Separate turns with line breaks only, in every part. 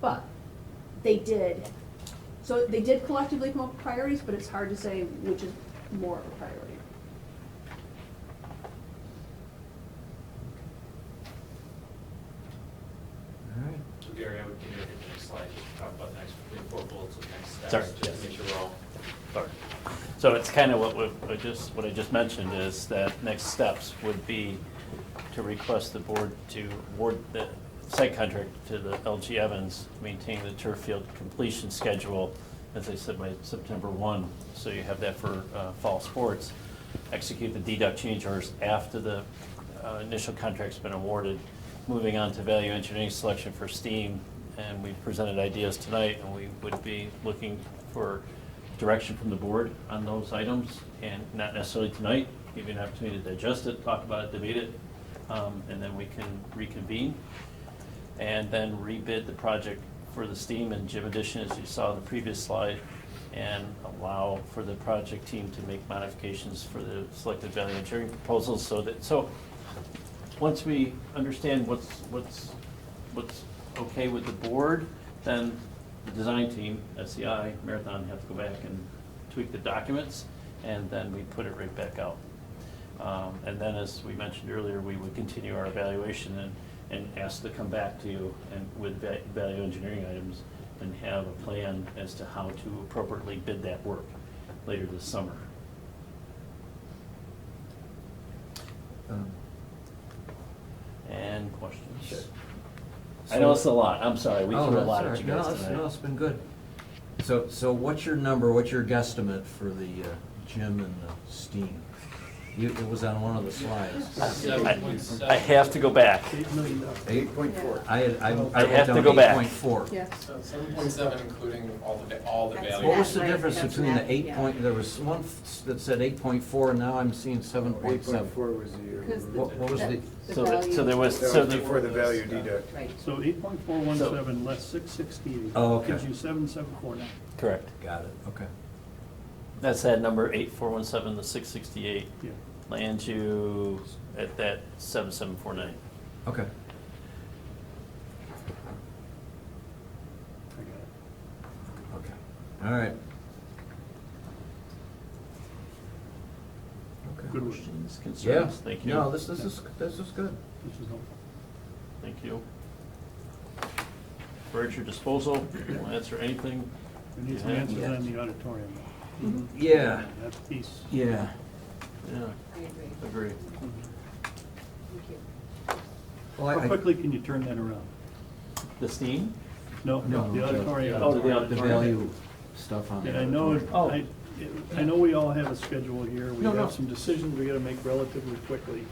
But they did, so they did collectively come up with priorities, but it's hard to say which is more of a priority.
Alright.
So Gary, I would give you the next slide, just talk about next, the four bullets of next steps.
Sorry,
Just to
yes.
make sure we're all,
Sorry. So it's kind of what we, I just, what I just mentioned is that next steps would be to request the board to award the site contract to the LG Evans, to maintain the turf field completion schedule, as I said, by September one, so you have that for, uh, fall sports. Execute the deduct change orders after the, uh, initial contract's been awarded. Moving on to value engineering selection for STEAM, and we presented ideas tonight, and we would be looking for direction from the board on those items, and not necessarily tonight, give you an opportunity to digest it, talk about it, debate it, um, and then we can reconvene. And then rebid the project for the STEAM and gym addition, as you saw in the previous slide, and allow for the project team to make modifications for the selected value engineering proposals, so that, so, once we understand what's, what's, what's okay with the board, then the design team, SEI, Marathon have to go back and tweak the documents, and then we put it right back out. Um, And then, as we mentioned earlier, we would continue our evaluation and, and ask to come back to you and with va- value engineering items and have a plan as to how to appropriately bid that work later this summer.
Um,
And questions?
Sure.
I know it's a lot, I'm sorry, we
Oh,
threw a
that's
lot
all
at
right.
you
No,
guys
it's-
tonight.
No, it's been good. So, so what's your number, what's your guesstimate for the uh, gym and the steam? You, it was on one of the slides.
I- I have to go back.
Eight million dollars.
Eight
Point four.
I, had- I, I
I have
wrote
to
down
go back.
eight point four.
Yes.
Seven
Seven point seven including all the, va- all the
That's
Oh,
value.
What was the
Right,
difference
that's
between
that,
the eight
yeah.
point, there was one f- that said eight point four, and now I'm seeing seven point seven.
was the year.
Because the-
What- what was
that-
the-
So, that- so there
value-
was, so the,
the value deduct.
Right.
So eight point four one seven less six sixty-eight.
Oh, okay.
Gives you seven seven four nine.
correct.
Got it, okay.
That's that number eight four one seven, the six sixty-eight,
Yeah.
lands you at that seven seven four nine.
Okay.
I got it.
Okay, all right. Okay.
Good work.
Questions,
Yeah.
concerns? Thank you.
No, this, this is, this is good.
This is helpful.
Thank you. We're at your disposal, we'll answer anything.
We need some
Yeah.
answers
Yeah. Mm-hmm.
on the auditorium. though.
Yeah,
That piece.
yeah.
Yeah,
I agree.
agree.
Thank you.
Well, I-
How
I-
quickly can you turn that around?
The steam?
No,
No,
the
the-
auditorium.
Oh, the
the
auditorium.
value stuff on
And
it.
I know, it-
Oh.
I, I know we all have a schedule here, we
No, no.
have some decisions we gotta make relatively quickly.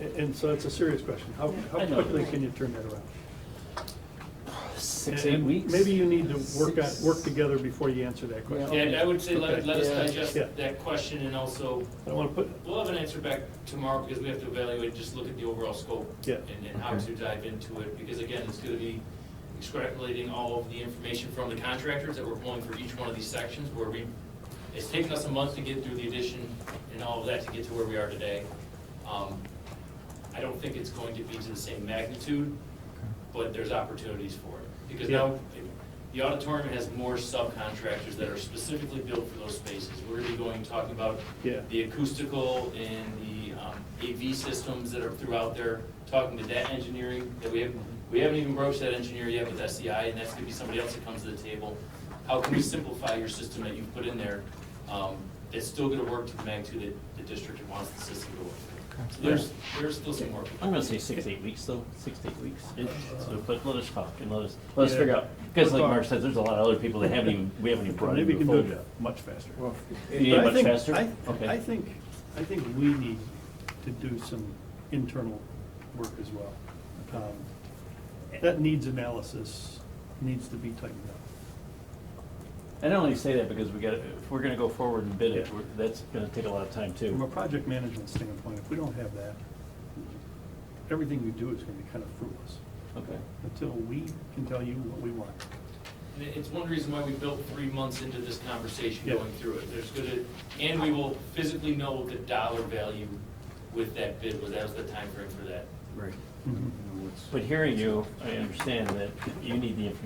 A- And so it's a serious question, how, how
I know.
quickly can you turn that around?
Six,
And-
eight
and
weeks?
Maybe you need to work out, work
Six.
together before you answer that question.
Yeah, I would say
Okay.
let, let us digest
Yeah.
that question and also,
I don't wanna put,
we'll have an answer back tomorrow because we have to evaluate, just look at the overall scope.
Yeah.
And, and how to dive into it, because again, it's gonna be extrapolating all of the information from the contractors that we're pulling for each one of these sections where we, it's taken us a month to get through the addition and all of that to get to where we are today. Um, I don't think it's going to be to the same magnitude, but there's opportunities for it. Because now, the auditorium has more subcontractors that are specifically built for those spaces. We're gonna be going, talking about
Yeah.
the acoustical and the um, AV systems that are throughout there, talking to that engineering, that we haven't, we haven't even broached that engineer yet with SEI, and that's gonna be somebody else that comes to the table. How can we simplify your system that you've put in there, um, that's still gonna work to the magnitude that the district wants the system to work? So there's, there's still some work.
I'm gonna say six, eight weeks though, six, to eight weeks. So, But let us talk and let us, let us
Yeah.
figure out, because
We'll
like
talk.
Mark says, there's a lot of other people that haven't even, we haven't even brought
maybe
into
you
the
can do
fold
it
yet.
much faster.
Well,
You need
But I
much
think-
faster?
I-
Okay.
I think, I think we need to do some internal work as well. Um, That needs analysis, needs to be tightened up.
And I only say that because we got, if we're gonna go forward and bid it,
Yeah.
we're- that's gonna take a lot of time too.
From a project management standpoint, if we don't have that, everything we do is gonna be kind of fruitless,
Okay.
until we can tell you what we want.
And it- It's one reason why we built three months into this conversation
Yeah.
going through it. There's gonna, and we will physically know the dollar value with that bid, was that was the timeframe for that.
Right.
Mhm.
But hearing you, I understand that you need the information